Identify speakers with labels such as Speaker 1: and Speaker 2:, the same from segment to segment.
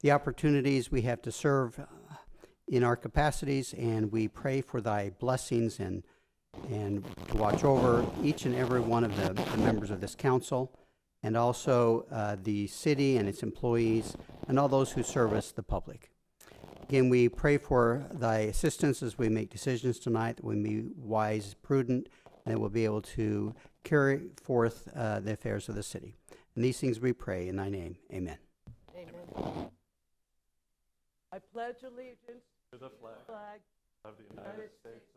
Speaker 1: the opportunities we have to serve uh, in our capacities, and we pray for thy blessings and, and to watch over each and every one of the, the members of this council, and also uh, the city and its employees, and all those who service the public. Again, we pray for thy assistance as we make decisions tonight, that we may be wise, prudent, and that we'll be able to carry forth uh, the affairs of the city. And these things we pray in thy name. Amen.
Speaker 2: Amen. I pledge allegiance
Speaker 3: To the
Speaker 2: to the
Speaker 3: flag
Speaker 2: flag
Speaker 3: of the
Speaker 2: United
Speaker 3: United States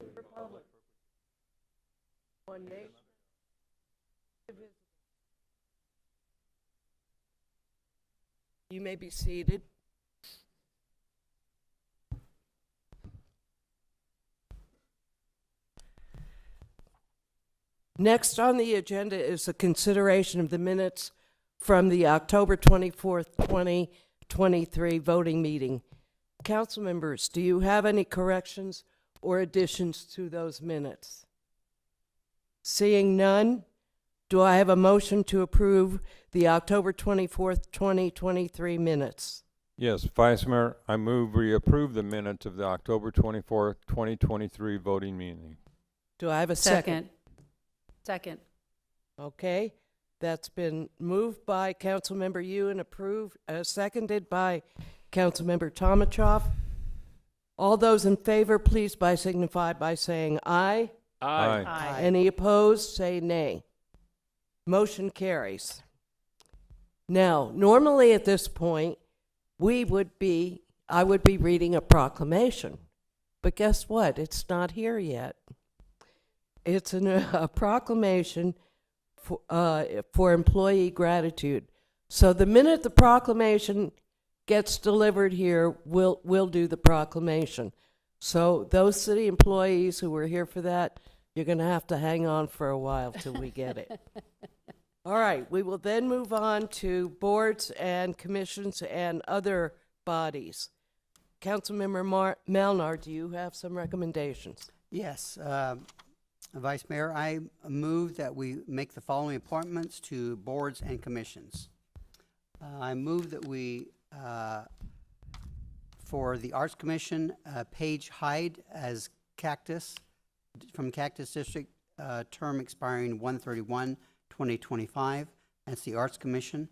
Speaker 3: of
Speaker 2: of the republic, one nation, indivisible. You may be seated. Next on the agenda is the consideration of the minutes from the October 24th, 2023 voting meeting. Council members, do you have any corrections or additions to those minutes? Seeing none, do I have a motion to approve the October 24th, 2023 minutes?
Speaker 4: Yes, Vice Mayor, I move we approve the minutes of the October twenty-fourth, twenty twenty-three voting meeting.
Speaker 2: Do I have a second?
Speaker 5: Second.
Speaker 2: Okay, that's been moved by Councilmember Ewan, approved, uh, seconded by Councilmember Tomachoff. All those in favor, please by signify by saying aye.
Speaker 4: Aye.
Speaker 5: Aye.
Speaker 2: Any opposed, say nay. Motion carries. Now, normally at this point, we would be, I would be reading a proclamation. But guess what? It's not here yet. It's an, a proclamation for, uh, for employee gratitude. So the minute the proclamation gets delivered here, we'll, we'll do the proclamation. So those city employees who were here for that, you're going to have to hang on for a while till we get it. All right, we will then move on to boards and commissions and other bodies. Councilmember Mar- Melnar, do you have some recommendations?
Speaker 1: Yes, uh, Vice Mayor, I move that we make the following appointments to boards and commissions. Uh, I move that we, uh, for the Arts Commission, uh, Paige Hyde as Cactus, d- from Cactus District, uh, term expiring 131, 2025 That's the Arts Commission.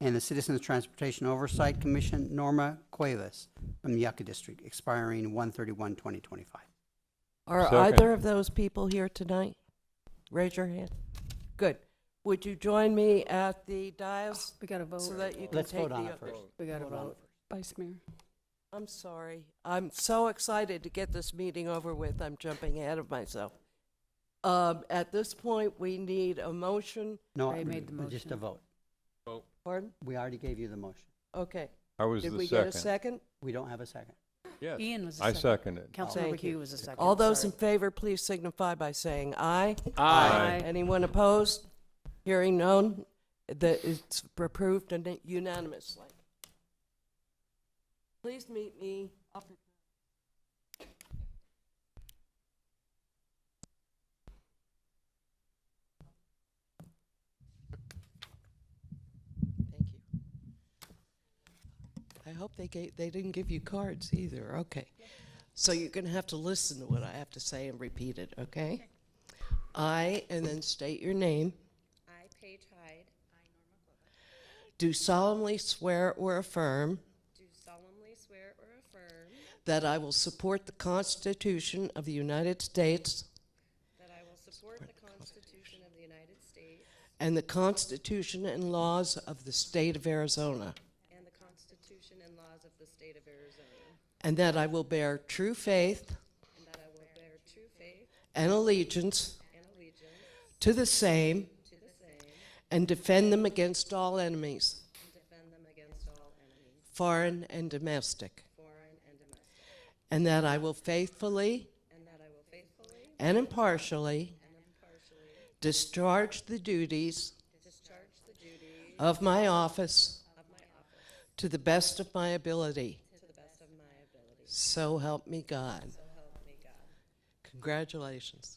Speaker 1: And the Citizens Transportation Oversight Commission, Norma Cuevas, from Yucca District, expiring 131, 2025
Speaker 2: Are
Speaker 4: Second.
Speaker 2: either of those people here tonight? Raise your hand. Good. Would you join me at the dais
Speaker 5: We got to vote.
Speaker 2: so that you can
Speaker 1: Let's
Speaker 2: take
Speaker 1: vote
Speaker 2: the
Speaker 1: on it
Speaker 2: others?
Speaker 1: first.
Speaker 5: We got to
Speaker 1: Vote on it
Speaker 5: vote. Vice Mayor.
Speaker 2: I'm sorry. I'm so excited to get this meeting over with. I'm jumping ahead of myself. Um, at this point, we need a motion.
Speaker 1: No,
Speaker 5: Ray
Speaker 1: I-
Speaker 5: made the
Speaker 1: just a
Speaker 5: motion.
Speaker 1: vote.
Speaker 2: Pardon?
Speaker 1: We already gave you the motion.
Speaker 2: Okay.
Speaker 4: I was
Speaker 2: Did
Speaker 4: the
Speaker 2: we get a
Speaker 4: second.
Speaker 2: second?
Speaker 1: We don't have a second.
Speaker 4: Yes,
Speaker 5: Ian was the
Speaker 4: I
Speaker 5: second.
Speaker 4: seconded.
Speaker 5: Councilmember
Speaker 2: Thank you.
Speaker 5: Hugh was the second.
Speaker 2: All those in
Speaker 5: sorry.
Speaker 2: favor, please signify by saying aye.
Speaker 4: Aye.
Speaker 2: Anyone opposed? Hearing none, that it's approved and unanimously. Please meet me up. Thank you. I hope they gave, they didn't give you cards either, okay. So you're gonna have to listen to what I have to say and repeat it, okay? I, and then state your name,
Speaker 6: I, Paige Hyde,
Speaker 2: do solemnly swear or affirm
Speaker 6: do solemnly swear or affirm
Speaker 2: that I will support the Constitution of the United States
Speaker 6: that I will support the Constitution of the United States
Speaker 2: and the Constitution and laws of the State of Arizona,
Speaker 6: and the Constitution and laws of the state of Arizona,
Speaker 2: and that I will bear true faith
Speaker 6: and that I will bear true faith
Speaker 2: and allegiance
Speaker 6: and allegiance
Speaker 2: to the same
Speaker 6: to the same
Speaker 2: and defend them against all enemies,
Speaker 6: and defend them against all enemies,
Speaker 2: foreign and domestic,
Speaker 6: foreign and domestic,
Speaker 2: and that I will faithfully
Speaker 6: and that I will faithfully
Speaker 2: and impartially
Speaker 6: and impartially
Speaker 2: discharge the duties
Speaker 6: discharge the duty
Speaker 2: of my office
Speaker 6: of my office
Speaker 2: to the best of my ability.
Speaker 6: to the best of my ability.
Speaker 2: So help me God.
Speaker 6: So help me God.
Speaker 2: Congratulations.